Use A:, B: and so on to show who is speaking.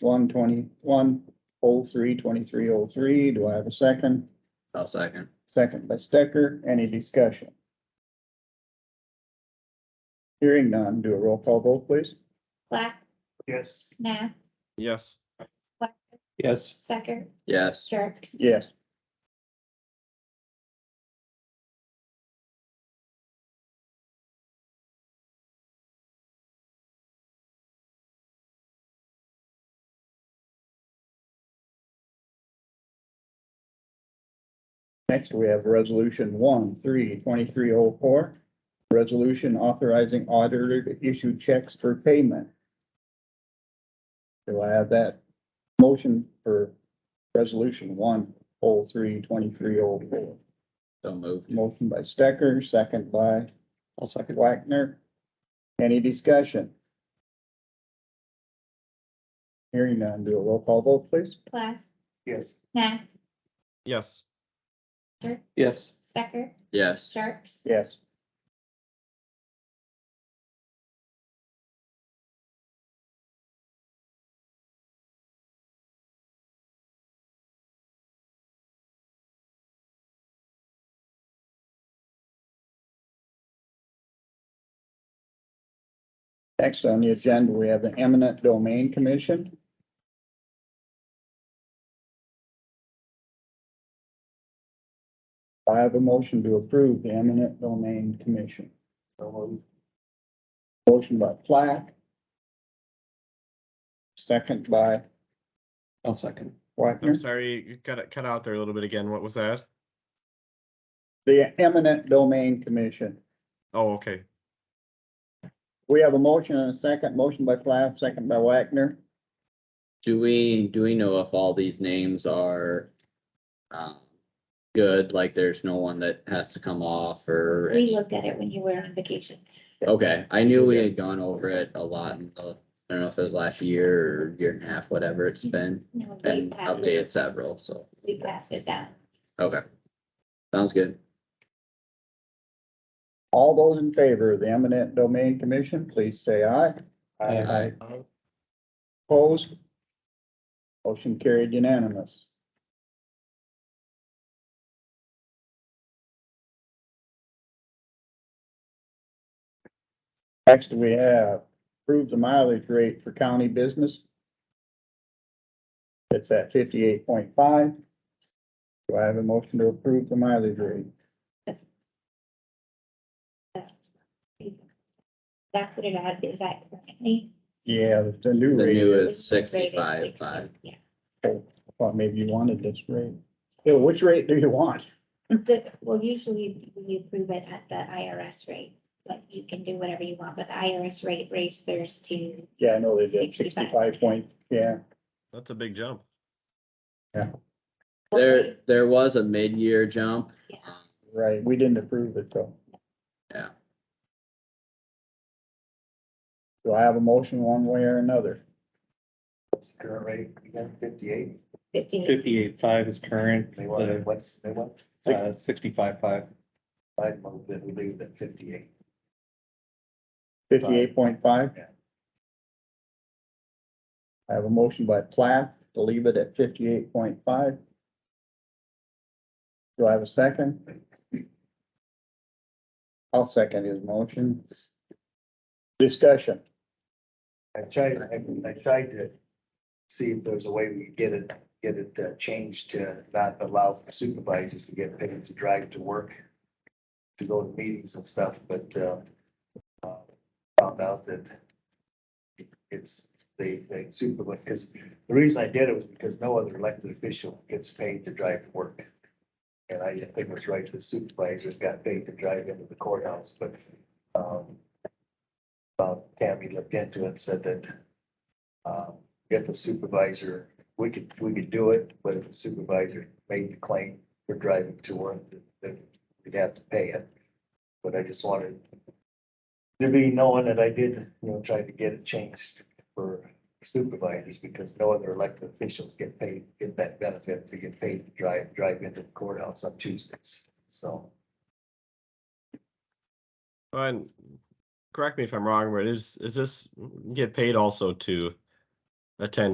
A: one twenty-one oh three twenty-three oh three. Do I have a second?
B: I'll second.
A: Second by Stecker. Any discussion? Hearing none, do a roll call vote, please.
C: Black,
D: Yes.
C: Nat,
D: Yes.
C: Black,
D: Yes.
C: Stecker,
B: Yes,
C: Jerks.
A: Yes. Next, we have resolution one, three, twenty-three oh four. Resolution authorizing auditor to issue checks for payment. Do I have that motion for Resolution one oh three twenty-three oh four.
B: so moved.
A: Motion by Stecker, second by
D: I'll second.
A: Wagner. Any discussion? Hearing none, do a roll call vote, please.
C: Black,
D: Yes.
C: Nat,
D: Yes.
C: Sure.
D: Yes.
C: Stecker,
B: Yes,
C: Jerks.
A: Yes. Next on the agenda, we have the eminent domain commission. I have a motion to approve the eminent domain commission. Motion by Plack. Second by
D: I'll second.
A: Wagner.
E: I'm sorry, you cut it cut out there a little bit again. What was that?
A: The eminent domain commission.
E: Oh, okay.
A: We have a motion and a second. Motion by Plack, second by Wagner.
B: do we, do we know if all these names are, um, good, like there's no one that has to come off or?
C: We looked at it when you were on vacation.
B: Okay, I knew we had gone over it a lot in the, I don't know if it was last year or year and a half, whatever it's been,
C: No, we
B: and
C: passed
B: updated
C: it-
B: several, so,
C: we passed it down.
B: okay. Sounds good.
A: All those in favor of the eminent domain commission, please say aye.
D: Aye.
E: Aye.
A: Opposed? Motion carried unanimous. Next, we have approved the mileage rate for county business. It's at fifty-eight point five. Do I have a motion to approve the mileage rate?
C: That's what it had, is that currently?
A: Yeah, the new
B: The
A: rate,
B: new
C: It
B: is
C: was the rate is
B: sixty-five,
C: 60,
B: five.
C: Yeah.
A: well, maybe you wanted this rate. Yeah, which rate do you want?
C: The, well, usually we approve it at the IRS rate, but you can do whatever you want, but the IRS rate raised theirs to
A: Yeah, I know they did
C: 65.
A: sixty-five point, yeah.
E: That's a big jump.
B: There, there was a mid-year jump.
C: Yeah.
B: um,
A: Right, we didn't approve it though.
B: Yeah.
A: Do I have a motion one way or another?
F: What's the current rate again, fifty-eight?
C: fifteen.
D: Fifty-eight five is current,
F: They want,
D: the
F: what's, they want,
D: uh sixty-five five.
F: I moved that we leave it at fifty-eight.
A: Fifty-eight point five?
F: Yeah.
A: I have a motion by Plath to leave it at fifty-eight point five. Do I have a second? I'll second his motion. Discussion.
F: I tried, I, I tried to see if there's a way we could get it, get it uh, changed to not allow supervisors to get paid to drive to work, to go to meetings and stuff, but, uh, uh, found out that it's, they, they supervise, because the reason I did it was because no other elected official gets paid to drive to work. And I didn't think it was right, that supervisors got paid to drive into the courthouse, but, um, uh, Tammy looked into it and said that um, if the supervisor, we could, we could do it, but if the supervisor made the claim for driving to work, then we'd have to pay it. But I just wanted to be knowing that I did, you know, try to get it changed for supervisors because no other elected officials get paid, get that benefit to get paid to drive, drive into the courthouse on Tuesdays. So
E: And correct me if I'm wrong, but is, is this get paid also to attend